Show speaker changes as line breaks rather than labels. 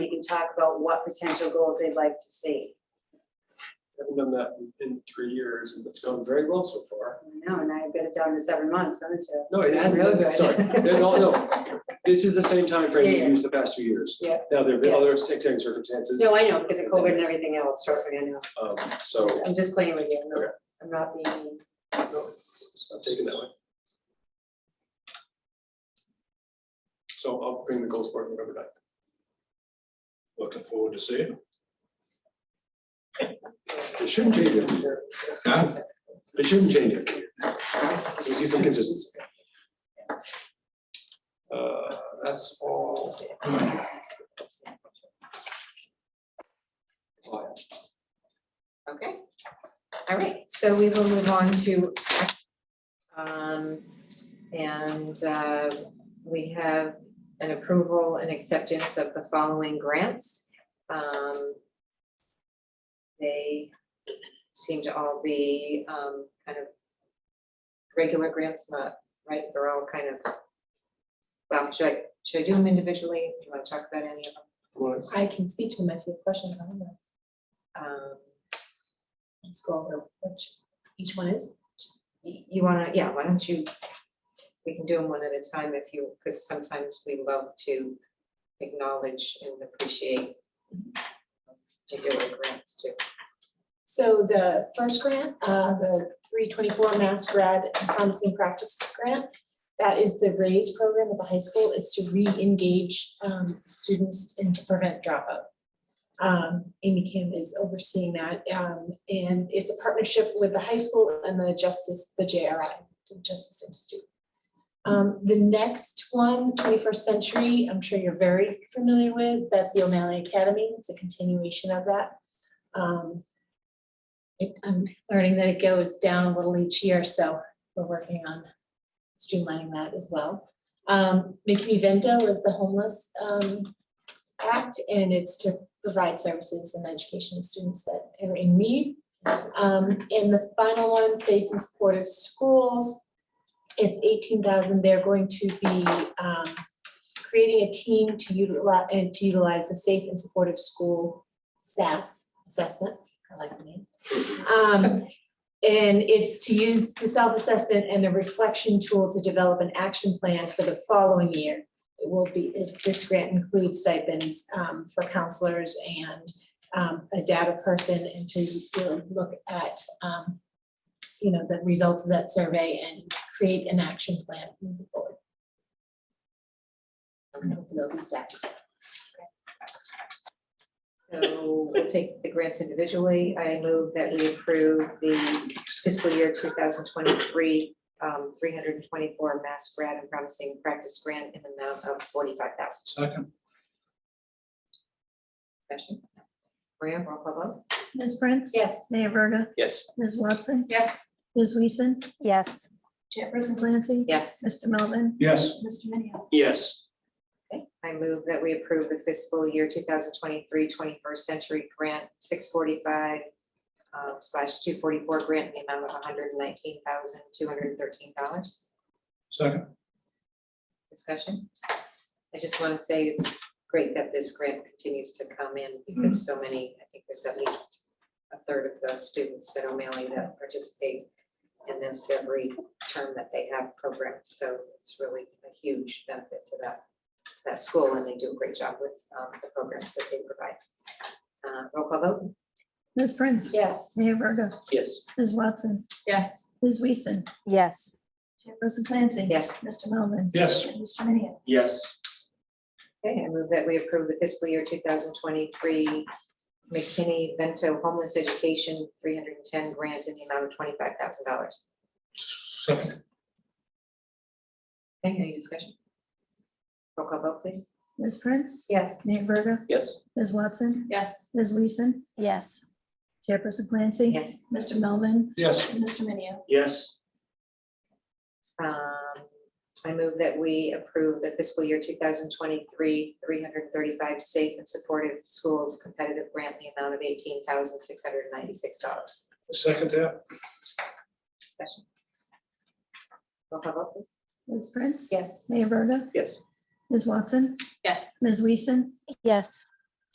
and talk about what potential goals they'd like to see.
Haven't done that in three years and it's gone very well so far.
No, and I've got it down to seven months, haven't you?
No, it hasn't,
Really
done that,
good.
sorry. No, no, no. This is the same timeframe we
Yeah, yeah.
used the past two years.
Yeah.
Now, there have been
Yeah.
other extenuating circumstances,
No, I know, because of COVID and everything else, trust me, I know.
um, so
I'm just playing with you, I'm not-
Okay.
I'm not being mean.
I'm taking that one. So I'll bring the goals board November ninth.
Looking forward to seeing.
They shouldn't change it.
Huh?
They shouldn't change it. We see some consistency. Uh, that's all.
Okay. All right, so we will move on to, um, and, uh, we have an approval and acceptance of the following grants. Um, they seem to all be, um, kind of regular grants, not, right, they're all kind of, well, should I, should I do them individually? Do you want to talk about any of them?
Well,
I can speak to them if you have questions on them.
Um,
Let's go over which each one is.
y- you wanna, yeah, why don't you, we can do them one at a time if you, because sometimes we love to acknowledge and appreciate
Mm-hmm.
particular grants too.
So the first grant, uh, the three twenty-four Mass Grad Promising Practices Grant, that is the RAISE program at the high school, is to re-engage um, students and to prevent dropout. Um, Amy Kim is overseeing that, um, and it's a partnership with the high school and the Justice, the JRI, the Justice Institute. Um, the next one, 21st century, I'm sure you're very familiar with, that's the O'Malley Academy, it's a continuation of that. Um, it, I'm learning that it goes down a little each year, so we're working on streamlining that as well. Um, Make Me Vento is the homeless, um, act, and it's to provide services and education to students that are in need. Um, and the final one, Safe and Supportive Schools, it's eighteen thousand, they're going to be, um, creating a team to utilize, and to utilize the Safe and Supportive School SAS assessment, I like the name. Um, and it's to use the self-assessment and a reflection tool to develop an action plan for the following year. It will be, it- this grant includes stipends, um, for counselors and, um, a data person and to really look at, um, you know, the results of that survey and create an action plan moving forward. And hopefully they'll be satisfied.
So we'll take the grants individually. I move that we approve the fiscal year two thousand twenty-three, um, three hundred and twenty-four Mass Grad and Promising Practice Grant in the amount of forty-five thousand.
Second,
Discussion. Maria, roll call vote.
Ms. Prince?
Yes.
Mayor Verda?
Yes.
Ms. Watson?
Yes.
Ms. Weason?
Yes.
Chairperson Clancy?
Yes,
Mr. Melvin?
yes,
Mr. Minio.
Yes.
Okay. I move that we approve the fiscal year 2023, 21st century grant, six forty-five um, slash two forty-four grant in the amount of hundred and nineteen thousand, two hundred and thirteen dollars.
second,
Discussion. I just want to say it's great that this grant continues to come in because so many, I think there's at least a third of those students at O'Malley that participate in this every term that they have programs. So it's really a huge benefit to that, to that school, and they do a great job with um, the programs that they provide. Uh, Roll call vote?
Ms. Prince?
Yes.
Mayor Verda?
Yes.
Ms. Watson?
Yes.
Ms. Weason?
Yes.
Chairperson Clancy?
Yes.
Mr. Melvin?
yes,
And Mr. Minio?
Yes.
Okay, I move that we approve the fiscal year two thousand twenty-three McKinney Vento Homeless Education three hundred and ten grant in the amount of twenty-five thousand dollars.
second,
Okay, any discussion? Roll call vote, please.
Ms. Prince?
Yes.
Mayor Verda?
Yes.
Ms. Watson?
Yes.
Ms. Weason?
Yes.
Chairperson Clancy?
Yes.
Mr. Melvin?
yes,
And Mr. Minio?
Yes.
Um, I move that we approve the fiscal year two thousand twenty-three three hundred and thirty-five Safe and Supportive Schools Competitive Grant in the amount of eighteen thousand six hundred and ninety-six dollars.
second that,
Discussion. Roll call vote, please.
Ms. Prince?
Yes.
Mayor Verda?
Yes.
Ms. Watson?
Yes.
Ms. Weason?
Yes.